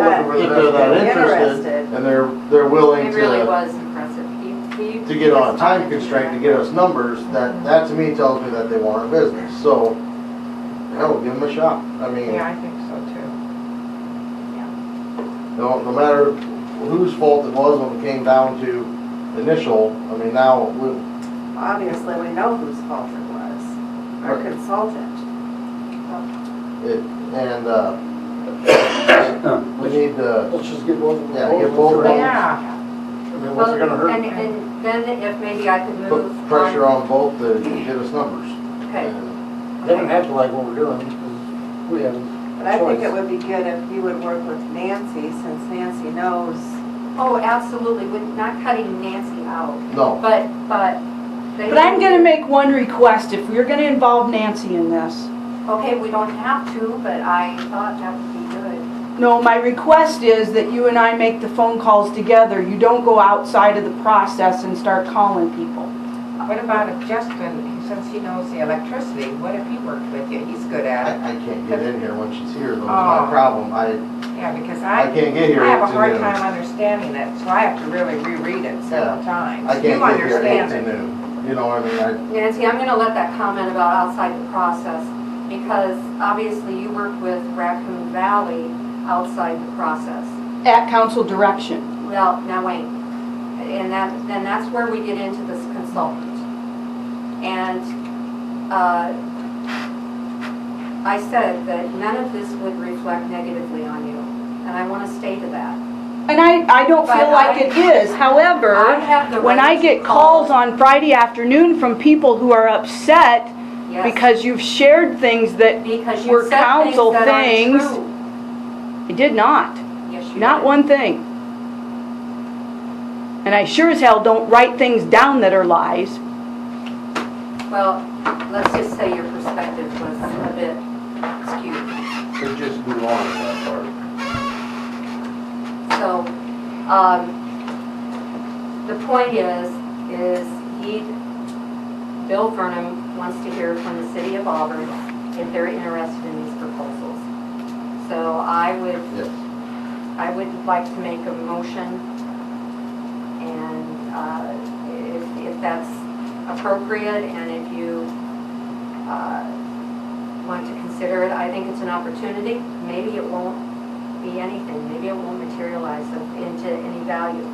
were If that they're that interested, interested. and they're, they're willing It really to, was impressive. He, he. to get on a time responded constraint to that. get us numbers, that, that to me tells me that they want our business, so, hell, give them a shot. I mean, Yeah, I think so too. no, no matter whose fault it was when it came down to initial, I mean, now, we- Obviously, we know whose fault it was, our Right. consultant. it, and, uh, we need to, Let's just get both of them. Yeah, get both of them. Yeah, I mean, what's it gonna Well, hurt? And, and then if maybe I could move put on. pressure on both to get us numbers. Okay, They don't have to like what we're doing, because we have But I think it a choice. would be good if you would work with Nancy, since Nancy knows. oh, absolutely, we're not cutting Nancy out, No, but, but. they- But I'm gonna make one request, if we're gonna involve Nancy in this. Okay, we don't have to, but I thought that would be good. No, my request is that you and I make the phone calls together. You don't go outside of the process and start calling people. what about if Justin, since he knows the electricity, what if he worked with you? He's good I, at it. I can't get in here when she's here, though, it's my problem, I, Yeah, because I Oh. I, can't get here. I have a It's in hard the- time understanding it, so I have to really reread it several times. I You can't get here at eight understand to it. noon. You know, I mean, I, Nancy, I'm gonna let that comment about outside the process, because obviously you worked with Raccoon Valley outside the process. At council direction. Well, now wait, and that, then that's where we get into this consultant. And, uh, I said that none of this would reflect negatively on you, and I wanna stay to that. And I, I don't feel But like I- it is, I however, have the when I right to get call- calls on Friday afternoon from people who are upset Yes, because you've shared things that because were you said things counsel that aren't things. true. I did not, Yes, you not did. one thing. And I sure as hell don't write things down that are lies. Well, let's just say your perspective was a bit skewed. They just move on with that part. So, um, the point is, is he, Bill Vernon wants to hear from the city of Auburn if they're interested in these proposals. So I would, yes. I would like to make a motion and, uh, if, if that's appropriate and if you, uh, want to consider it, I think it's an opportunity. Maybe it won't be anything, maybe it won't materialize of- into any value.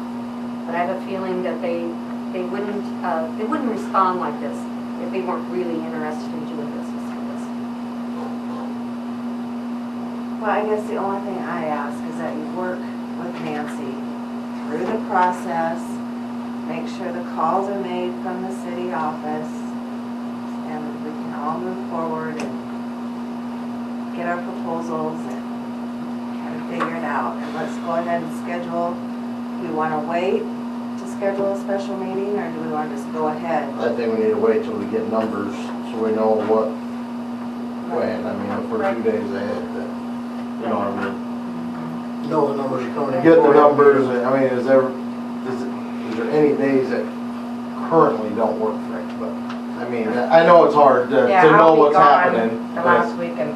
But I have a feeling that they, they wouldn't, uh, they wouldn't respond like this if they weren't really interested in doing business with us. Well, I guess the only thing I ask is that you work with Nancy through the process, make sure the calls are made from the city office, and we can all move forward and get our proposals and kind of figure it out. And let's go ahead and schedule, do you want to wait to schedule a special meeting, or do we want to just go ahead? I think we need to wait till we get numbers so we know what, when, I mean, if we're two days ahead, then, you know, what I mean. Know the numbers are coming in. Get the numbers, and, I mean, is there, is, is there any days that currently don't work for it, but, I mean, I know it's hard to, Yeah, to know I'll be what's gone happening. The but- last week in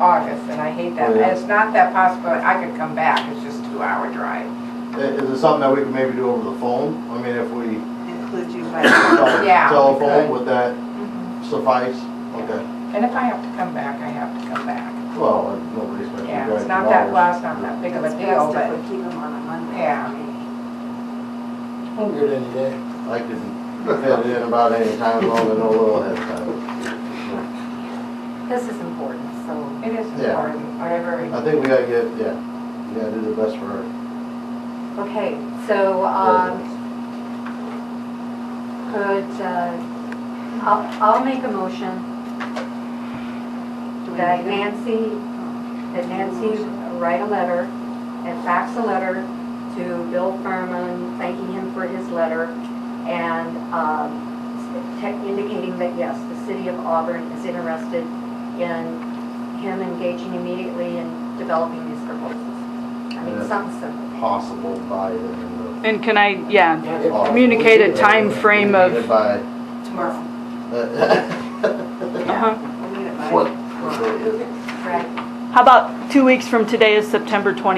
August, and I hate that. Yeah. It's not that possible, I could come back, it's just two hour drive. I- Is it something that we can maybe do over the phone? I mean, if we Include you by, tel- Yeah, we telephone, could. would that Mm-hmm. suffice? Okay, And if I have to come back, I have to come back. well, uh, nobody's gonna be Yeah, driving it's not that, hours. well, it's not that big of a it's deal, best if but we keep them on a Monday. Yeah. We'll get any day. I can fit it in about any time, long as I know a little ahead of time. This is important, so. it is Yeah. important, whatever. I think we gotta get, yeah, we gotta do the best for our Okay, so, um, residents. could, uh, I'll, I'll make a motion Do we that need it? Nancy, that Nancy write a letter and fax a letter to Bill Furman, thanking him for his letter and, um, te- indicating that yes, the city of Auburn is interested in him engaging immediately in developing these proposals. I mean, Yeah. something simple. Possible by the end And can I, yeah, of. Communicate a time frame of- By, Tomorrow. uh, uh-huh. We need it by. what, what day is it? Right. How about two weeks from today is September 20th?